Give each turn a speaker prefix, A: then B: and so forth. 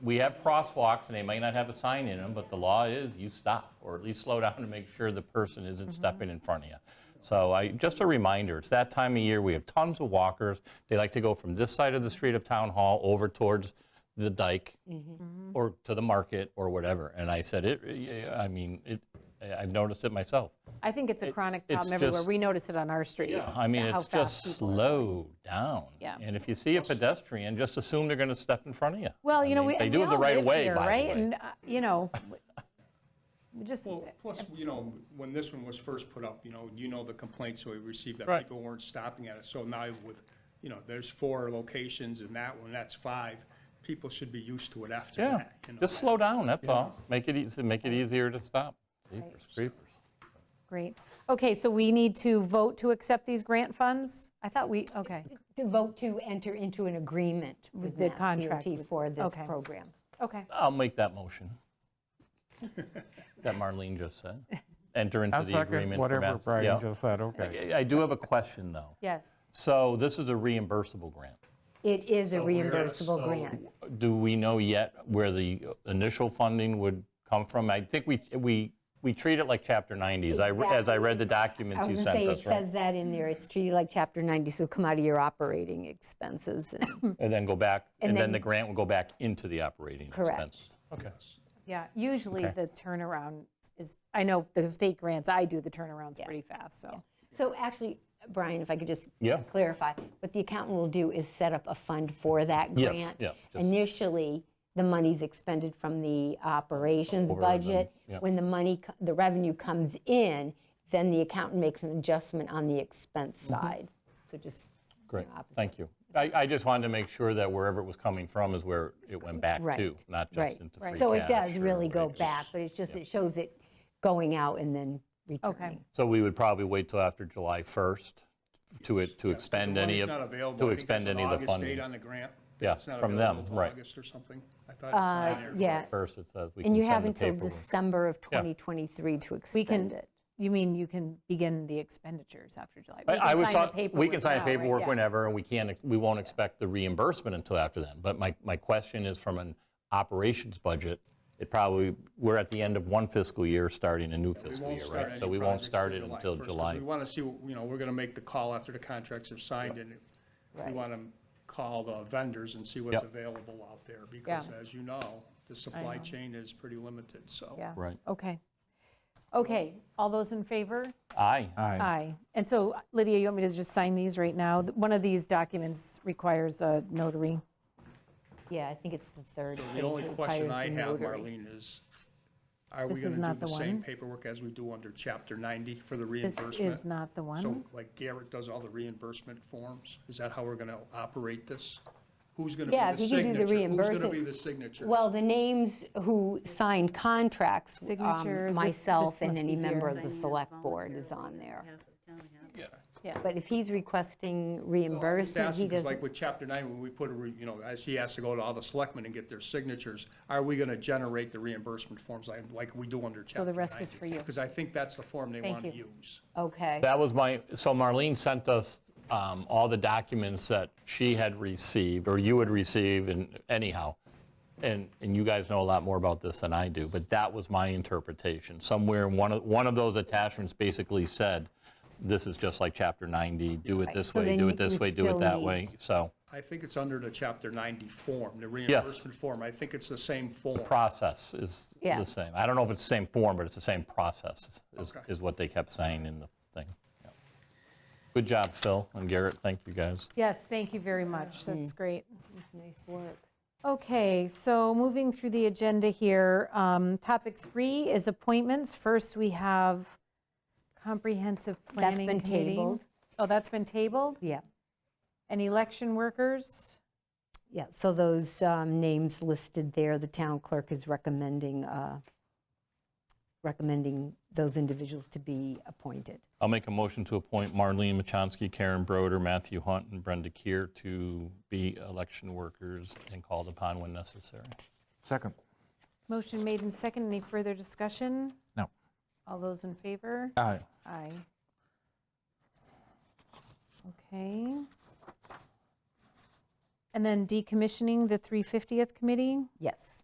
A: we have crosswalks and they might not have a sign in them, but the law is you stop or at least slow down to make sure the person
B: Mm-hmm.
A: isn't stepping in front of you. So I, just a reminder, it's that time of year, we have tons of walkers. They like to go from this side of the street of Town Hall over towards the dike
B: Mm-hmm.
A: or to the market or whatever. And I said, it, yeah, I mean, it, I- I've noticed it myself.
B: I think it's a chronic
A: it's
B: problem everywhere.
A: just-
B: We notice it on our street.
A: I mean,
B: how
A: it's just
B: fast people are
A: slow down.
B: Yeah.
A: And if you see a pedestrian, just assume they're going to step in front of you.
B: Well, you know,
A: I
B: we,
A: mean, they
B: and
A: do
B: we
A: have the
B: all
A: right
B: live
A: of way,
B: here,
A: by the
B: right?
A: way.
B: And, uh, you know, we just,
C: Well, plus, you know, when this one was first put up, you know, you know the complaints we received that
A: Right.
C: people weren't stopping at it. So now with, you know, there's four locations and that one, that's five. People should be used to it after
A: Yeah,
C: that. you know.
A: just slow down, that's all. Make it easy, make it easier to stop. Creepers, creepers.
B: great. Okay, so we need to vote to accept these grant funds? I thought we, okay,
D: To vote to enter into an agreement with
B: the
D: Mass
B: contract
D: DOT
B: with-
D: for this
B: okay.
D: program.
B: okay.
A: I'll make that motion that Marlene just said. Enter into
E: I'll
A: the
E: second
A: agreement. for
E: whatever
A: Mass- yeah.
E: Brian just said, okay.
A: I I do have a question, though.
B: Yes.
A: So this is a reimbursable grant.
D: It is a
C: so-
D: reimbursable grant.
A: Do we know yet where the initial funding would come from? I think we, we, we treat it like Chapter 90s, I re- as I read the documents
D: I was
A: you
D: going to
A: sent
D: say, it
A: us, right?
D: says that in there, it's treated like Chapter 90, so it'll come out of your operating expenses. and-
A: And then go back, and then
D: then-
A: the grant will go back into the operating
D: Correct.
A: expenses. Okay.
B: Yeah, usually the turnaround is, I know the state grants, I do the turnarounds pretty fast, so.
D: So actually, Brian, if I could just
A: Yeah.
D: clarify, what the accountant will do is set up a fund for that
A: Yes,
D: grant.
A: yeah, just-
D: Initially, the money's expended from the
A: and
D: operations
A: then-
D: budget.
A: yeah.
D: When the money, co- the revenue comes in, then the accountant makes an adjustment on the expense
A: Mm-hmm.
D: side. So just,
A: Great, thank you. I, I just wanted to make sure that wherever it was coming from is where it went back to,
D: Right,
A: not
D: right.
A: just into free cash.
D: So it does
A: or
D: really go
A: whatever.
D: back, but it's just, it shows it going out and then returning.
A: So we would probably wait till after July 1st to, it to expend
C: The
A: any
C: money's
A: of,
C: not available.
A: to
C: I think
A: expend
C: there's an
A: any of the
C: August date
A: funding.
C: on the grant.
A: Yeah,
C: It's not
A: from
C: available
A: them,
C: till
A: right.
C: August or something. I thought it's not in there.
D: Uh, Yeah,
A: First, it says we
D: and you
A: can
D: have
A: send the
D: until
A: paperwork.
D: December of 2023 to
B: We can,
D: expend it.
B: you mean you can begin the expenditures after July? We
A: I- I
B: can
A: was
B: sign the
A: talk- We can sign
B: now,
A: the
B: right?
A: paperwork
B: Yeah.
A: whenever, and we can't, we won't expect the reimbursement until after then. But my, my question is from an operations budget, it probably, we're at the end of one fiscal year, starting a new
C: We
A: fiscal
C: won't
A: year,
C: start
A: right?
C: any
A: So we won't
C: projects
A: start it
C: till
A: until
C: 1st, 'cause
A: July.
C: We want to see, you know, we're going to make the call after the contracts are signed and we
D: Right.
C: want to call the vendors and see what's
A: Yep.
C: available out there because
B: Yeah.
C: as you know, the supply chain is pretty limited, so.
B: Yeah.
A: Right.
B: Okay. Okay, all those in favor?
A: Aye.
E: Aye.
B: Aye. And so Lydia, you want me to just sign these right now? Th- One of these documents requires a notary.
D: Yeah, I think it's the third.
C: The
D: page
C: only
D: that
C: question
D: requires
C: I
D: the
C: have,
D: notary.
C: Marlene, is are we
B: This is
C: going to
B: not
C: do the
B: the
C: same
B: one.
C: paperwork as we do under Chapter 90 for the
B: This
C: reimbursement?
B: is not the
C: So
B: one.
C: like Garrett does all the reimbursement forms? Is that how we're going to operate this? Who's going to
D: Yeah,
C: be
D: if
C: the
D: you could do the
C: signature? Who's going to
D: reimburse-
C: be the signature?
D: Well, the names who signed contracts, um,
B: Signature, this-
D: myself
B: this
D: and
B: must
D: any
B: be
D: member
B: here.
D: of the select board is on there.
C: Yeah.
D: But if he's requesting
C: Just
D: reimbursement, he
C: asking, because like
D: doesn't,
C: with Chapter 9, when we put a, re- you know, as he has to go to all the selectmen and get their signatures, are we going to generate the reimbursement forms like like we do under Chapter 90?
B: the rest is for you.
C: Because I think that's the form they
B: Thank
C: want to
B: you.
C: use.
D: okay,
A: That was my, so Marlene sent us um, all the documents that she had received, or you had received, and anyhow, and, and you guys know a lot more about this than I do, but that was my interpretation. Somewhere, in one of, one of those attachments basically said, this is just like Chapter 90, do it this
D: so
A: way,
D: then
A: do
D: you
A: it this
D: would
A: way, do it
D: still
A: that
D: need-
A: way, so,
C: I think it's under the Chapter 90 form, the reimbursement form. I think it's the same form.
A: process is is
D: Yeah.
A: the same. I don't know if it's the same form, but it's the same process, is-
C: Okay.
A: is what they kept saying in the thing. Yeah. Good job, Phil and Garrett, thank you guys.
B: Yes, thank you very much. That's great.
D: nice work.
B: Okay, so moving through the agenda here, um, topic three is appointments. First, we have comprehensive
D: That's
B: planning committee.
D: been tabled.
B: Oh, that's been tabled?
D: Yeah,
B: And election workers?
D: yeah, so those um, names listed there, the town clerk is recommending, uh, recommending those individuals to be appointed.
A: I'll make a motion to appoint Marlene Machonsky, Karen Broder, Matthew Hunt, and Brenda Keer to be election workers and called upon when necessary.
E: Second,
B: Motion made and second. Any further discussion?
E: no,
B: All those in favor?
E: aye.
B: Aye. Okay. And then decommissioning the 350th committee?
D: Yes.